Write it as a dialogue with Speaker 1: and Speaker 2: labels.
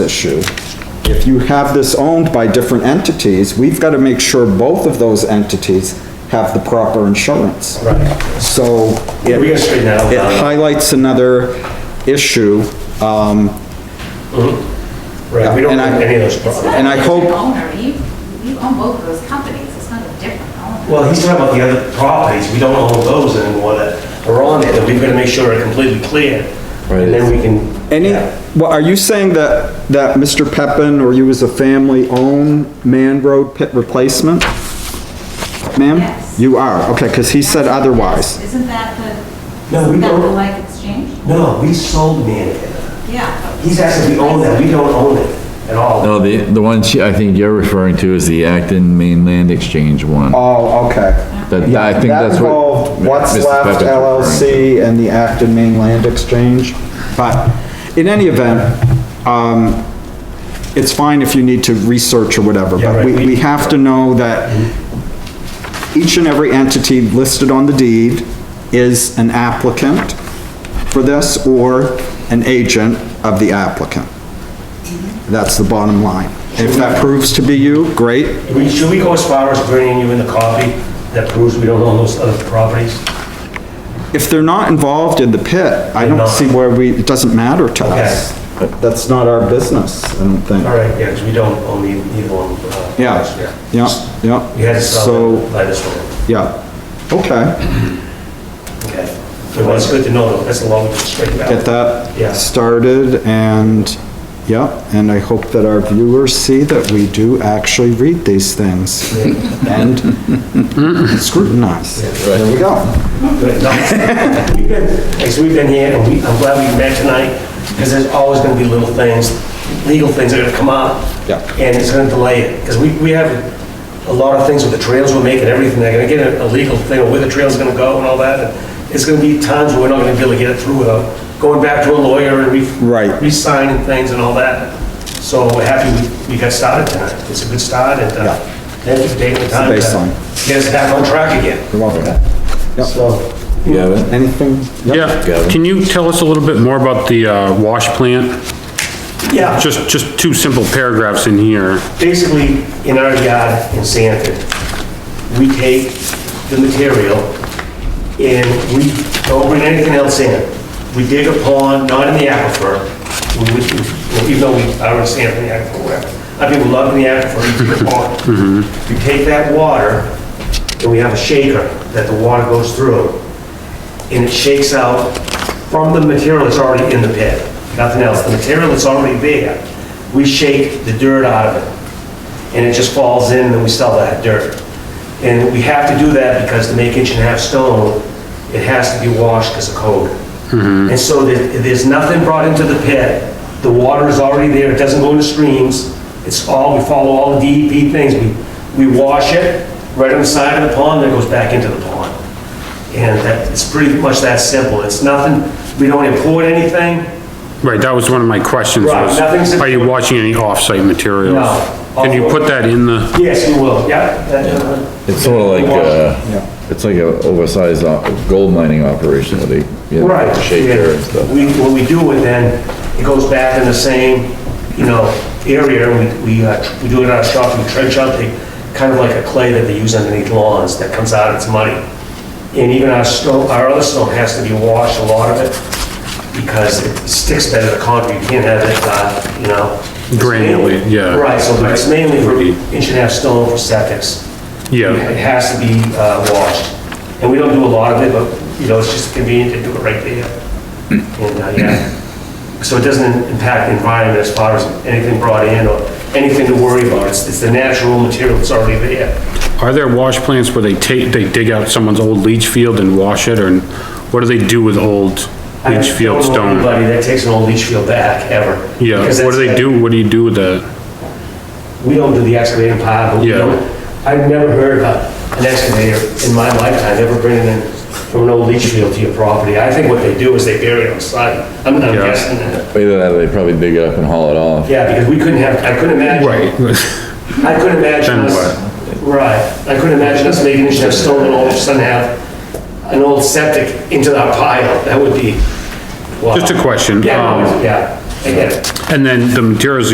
Speaker 1: issue. If you have this owned by different entities, we've got to make sure both of those entities have the proper insurance.
Speaker 2: Right.
Speaker 1: So it
Speaker 2: We gotta straighten that out.
Speaker 1: it highlights another issue, um,
Speaker 2: Right, we don't
Speaker 1: And I-
Speaker 2: have any of those
Speaker 3: It's
Speaker 2: problems.
Speaker 3: not
Speaker 1: And
Speaker 3: a
Speaker 1: I
Speaker 3: different
Speaker 1: hope-
Speaker 3: owner, you, you own both of those companies, it's not a different owner.
Speaker 2: Well, he's talking about the other properties, we don't own those anymore that are on it, that we've gotta make sure are completely clear. And then we can.
Speaker 1: Any,
Speaker 2: Yeah.
Speaker 1: well, are you saying that, that Mr. Peppin or you as a family own Man Road pit replacement? Ma'am?
Speaker 3: Yes.
Speaker 1: You are, okay, because he said otherwise.
Speaker 3: Isn't that the,
Speaker 2: No, we
Speaker 3: isn't that the
Speaker 2: don't.
Speaker 3: like exchange?
Speaker 2: No, we sold Mannequin.
Speaker 3: Yeah. but-
Speaker 2: He's asking, we own that, we don't own it at all.
Speaker 4: No, the, the one she- I think you're referring to is the Acton Mainland Exchange one.
Speaker 1: Oh, okay.
Speaker 4: That, I think that's
Speaker 1: That
Speaker 4: what.
Speaker 1: involved What's Left
Speaker 4: Mr. Pepper's referring to.
Speaker 1: LLC and the Acton Mainland Exchange. But in any event, um, it's fine if you need to research or whatever,
Speaker 2: Yeah,
Speaker 1: but
Speaker 2: right,
Speaker 1: we,
Speaker 2: we-
Speaker 1: we have to know that each and every entity listed on the deed is an applicant for this or an agent of the applicant. That's the bottom line. If that proves to be you, great.
Speaker 2: Do we- Should we go as far as bringing you in the copy that proves we don't own those other properties?
Speaker 1: If they're not involved in the pit, I
Speaker 2: They're
Speaker 1: don't
Speaker 2: not.
Speaker 1: see where we, it doesn't matter to us. That's not our business, I don't think.
Speaker 2: All right, yeah, because we don't own the- either one. uh,
Speaker 1: Yeah, yeah, yeah.
Speaker 2: We had to sell
Speaker 1: So,
Speaker 2: it by this one,
Speaker 1: yeah, okay,
Speaker 2: okay. Well, it's good to know, though. that's a long, straight out.
Speaker 1: get
Speaker 2: Yeah.
Speaker 1: that started and, yeah, and I hope that our viewers see that we do actually read these things and scrutinize. There we go.
Speaker 2: Good. No, We've been, as we've been here, and we, I'm glad we met tonight, because there's always gonna be little things, legal things that are gonna come up.
Speaker 1: Yeah.
Speaker 2: And it's gonna delay it, because we, we have a lot of things with the trails we're making, everything, they're gonna get a a legal thing, of where the trail's gonna go and all that. and It's gonna be times where we're not gonna be able to get it through without going back to a lawyer and re.
Speaker 1: Right.
Speaker 2: Re-signing things and all that. So we're happy we, we got started tonight. It's a good start, and,
Speaker 1: Yeah.
Speaker 2: uh, thank you for taking the time. to
Speaker 1: baseline.
Speaker 2: Get us back on track again,
Speaker 1: Love it.
Speaker 2: so.
Speaker 4: You have it?
Speaker 1: Anything?
Speaker 5: Yeah, can you tell us a little bit more about the uh, wash plant?
Speaker 2: Yeah.
Speaker 5: Just, just two simple paragraphs in here.
Speaker 2: basically, in our yard in Sanford, we take the material and we don't bring anything else in. We dig a pond, not in the aquifer, we would- even though we are in Sanford, in the aquifer, whatever. I mean, we love in the aquifer, we dig a pond. We take that water and we have a shaker that the water goes through and it shakes out from the material that's already in the pit, nothing else. The material that's already there, we shake the dirt out of it, and it just falls in, and then we sell that dirt. And we have to do that because to make inch and a half stone, it has to be washed because of code. And so there- there's nothing brought into the pit, the water is already there, it doesn't go into streams, it's all, we follow all the DEP things, we, we wash it right on the side of the pond, then it goes back into the pond. And that, it's pretty much that simple. It's nothing, we don't import anything.
Speaker 5: Right, that was one of my questions
Speaker 2: Right,
Speaker 5: was,
Speaker 2: nothing's-
Speaker 5: are you washing any off-site materials?
Speaker 2: No.
Speaker 5: Can you put that in the,
Speaker 2: Yes, we will, yeah. that-
Speaker 4: It's sort of like,
Speaker 1: Yeah.
Speaker 4: uh, it's like a oversized op- gold mining operation where they, you
Speaker 2: Right.
Speaker 4: know, shaker and stuff.
Speaker 2: We, when we do it, then it goes back in the same, you know, area. We, we, uh, tr- we do it in our shop, we trench out the, kind of like a clay that they use underneath lawns that comes out, it's muddy. And even our stone, our other stone has to be washed, a lot of it, because it sticks better to concrete. You can't have it, uh, you know.
Speaker 5: Granulate, yeah.
Speaker 2: Right, so but it's mainly for inch and a half stone for septics. It
Speaker 5: yeah,
Speaker 2: has to be uh, washed. And we don't do a lot of it, but, you know, it's just convenient to do it right there. And, uh, yeah, so it doesn't impact the environment as far as anything brought in or anything to worry about. It's, it's the natural material that's already there.
Speaker 5: are there wash plants where they take, they dig out someone's old leach field and wash it, or what do they do with old
Speaker 2: I
Speaker 5: leach field
Speaker 2: don't know
Speaker 5: stone?
Speaker 2: Anybody that takes an old leach field back, ever.
Speaker 5: Yeah,
Speaker 2: Because
Speaker 5: what do they
Speaker 2: that's-
Speaker 5: do, what do you do with that?
Speaker 2: We don't do the excavating part, but we
Speaker 5: Yeah.
Speaker 2: don't, I've never heard of an excavator in my lifetime ever bringing in from an old leach field to your property. I think what they do is they bury it on site. I'm I'm
Speaker 5: Yeah.
Speaker 2: guessing that.
Speaker 4: Either that or they probably dig it up and haul it off.
Speaker 2: Yeah, because we couldn't have, I couldn't imagine. I couldn't imagine
Speaker 5: Then
Speaker 2: us, right, I couldn't imagine us making it have stolen and all of a sudden have an old septic into that pile, that would be. wow.
Speaker 5: Just a question,
Speaker 2: Yeah,
Speaker 5: um,
Speaker 2: yeah, I get it.
Speaker 5: and then the materials